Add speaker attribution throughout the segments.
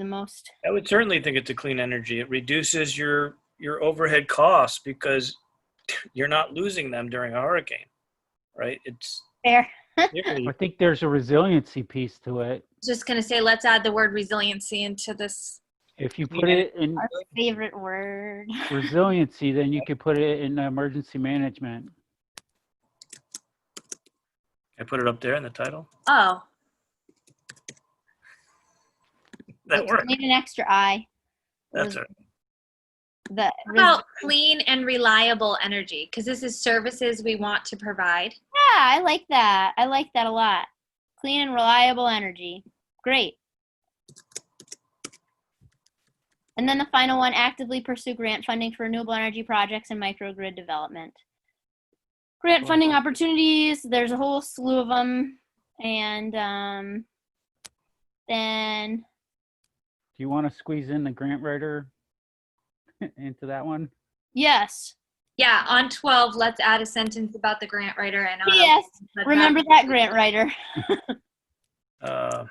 Speaker 1: the most.
Speaker 2: I would certainly think it's a clean energy. It reduces your your overhead costs because you're not losing them during a hurricane, right? It's
Speaker 1: Fair.
Speaker 3: I think there's a resiliency piece to it.
Speaker 4: Just gonna say, let's add the word resiliency into this.
Speaker 3: If you put it in
Speaker 1: Our favorite word.
Speaker 3: resiliency, then you could put it in emergency management.
Speaker 2: I put it up there in the title.
Speaker 4: Oh,
Speaker 2: That worked.
Speaker 1: Need an extra I.
Speaker 2: That's all right.
Speaker 1: The
Speaker 4: how about clean and reliable energy, because this is services we want to provide.
Speaker 1: yeah, I like that. I like that a lot. Clean and reliable energy. Great. And then the final one: actively pursue grant funding for renewable energy projects and microgrid development. Grant funding opportunities. There's a whole slew of them, and um, then
Speaker 3: Do you want to squeeze in the grant writer into that one?
Speaker 1: yes,
Speaker 4: Yeah, on twelve, let's add a sentence about the grant writer and. uh, on
Speaker 1: yes.
Speaker 4: 11, let's add-
Speaker 1: Remember that grant writer.
Speaker 2: Uh,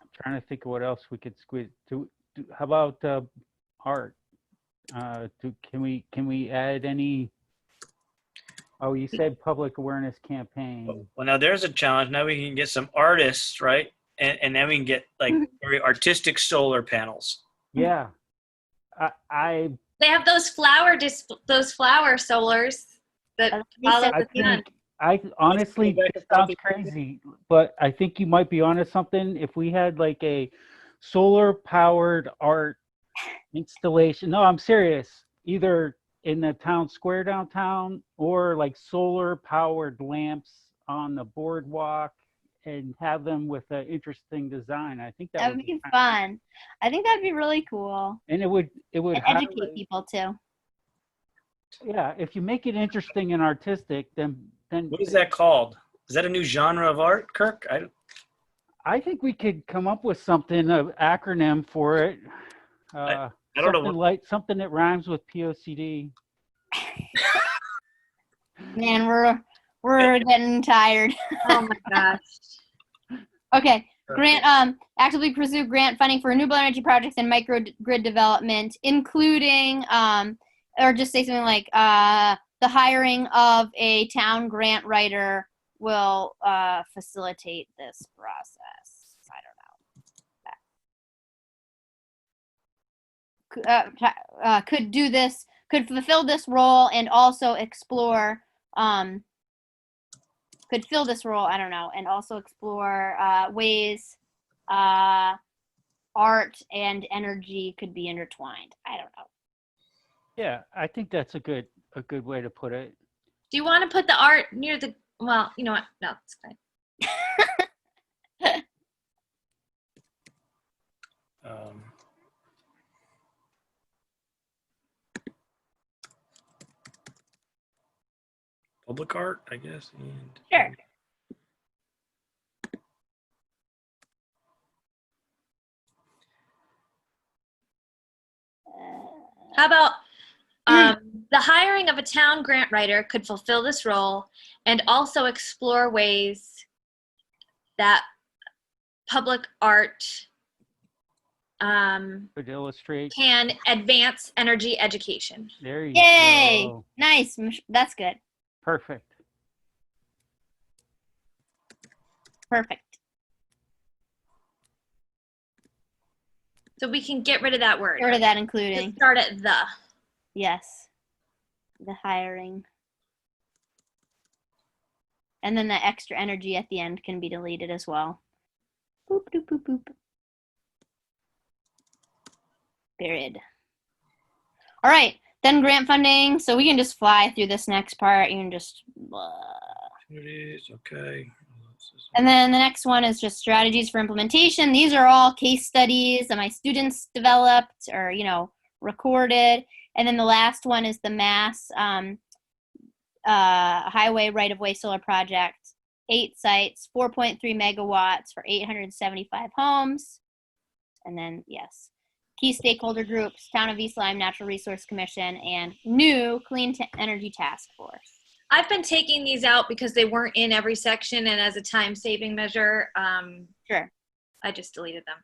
Speaker 3: I'm trying to think of what else we could squeeze. Do, do how about uh, art? Uh, do can we can we add any? Oh, you said public awareness campaign.
Speaker 2: well, now there's a challenge. Now we can get some artists, right? And, and then we can get like very artistic solar panels.
Speaker 3: Yeah, I I,
Speaker 4: They have those flower dis, those flower solars that follow
Speaker 3: I
Speaker 4: the sun.
Speaker 3: think I honestly
Speaker 2: back
Speaker 3: this
Speaker 2: to
Speaker 3: sounds
Speaker 2: public
Speaker 3: crazy, but I think you might be onto something. If we had like a solar powered art installation. No, I'm serious. Either in the town square downtown or like solar powered lamps on the boardwalk and have them with an interesting design. I think that
Speaker 1: That would
Speaker 3: would
Speaker 1: be
Speaker 3: kinda-
Speaker 1: fun. I think that'd be really cool.
Speaker 3: And it would it would
Speaker 1: And educate
Speaker 3: highlight-
Speaker 1: people too.
Speaker 3: Yeah, if you make it interesting and artistic, then then
Speaker 2: What is that called? Is that a new genre of art, Kirk? I, don't-
Speaker 3: I think we could come up with something, an acronym for it. Uh,
Speaker 2: I don't know.
Speaker 3: something
Speaker 2: what-
Speaker 3: Like something that rhymes with POCD.
Speaker 1: Man, we're we're getting tired.
Speaker 4: Oh my gosh.
Speaker 1: Okay, grant um actively pursue grant funding for renewable energy projects and micro d- grid development, including um or just say something like uh the hiring of a town grant writer will uh facilitate this process. I don't know. C- Uh, t- uh, could do this, could fulfill this role, and also explore um, could fill this role i don't know and also explore uh, ways uh, art and energy could be intertwined i don't know
Speaker 3: Yeah, I think that's a good a good way to put it.
Speaker 4: Do you want to put the art near the? Well, you know what? No, it's fine.
Speaker 2: Um, public art, I guess. And
Speaker 1: Sure. Uh,
Speaker 4: How about
Speaker 1: Hmm.
Speaker 4: um, the hiring of a town grant writer could fulfill this role and also explore ways that public art um,
Speaker 3: Could illustrate.
Speaker 4: can advance energy education.
Speaker 3: There you
Speaker 1: Yay!
Speaker 3: go.
Speaker 1: nice Mich- that's good
Speaker 3: Perfect.
Speaker 1: perfect
Speaker 4: So we can get rid of that word.
Speaker 1: Get rid of that
Speaker 4: Just
Speaker 1: including
Speaker 4: start at the.
Speaker 1: yes the hiring and then the extra energy at the end can be deleted as well boop boop boop boop period. All right, then grant funding. So we can just fly through this next part. You can just, blah.
Speaker 2: Opportunities, okay.
Speaker 1: and then the next one is just strategies for implementation. These are all case studies that my students developed or you know recorded. And then the last one is the mass um, uh, highway right of way solar project. Eight sites, 4.3 megawatts for 875 homes. And then yes, key stakeholder groups, Town of East Lyme Natural Resource Commission, and new Clean T- Energy Task Force.
Speaker 4: I've been taking these out because they weren't in every section and as a time saving measure. Um,
Speaker 1: Sure.
Speaker 4: I just deleted them.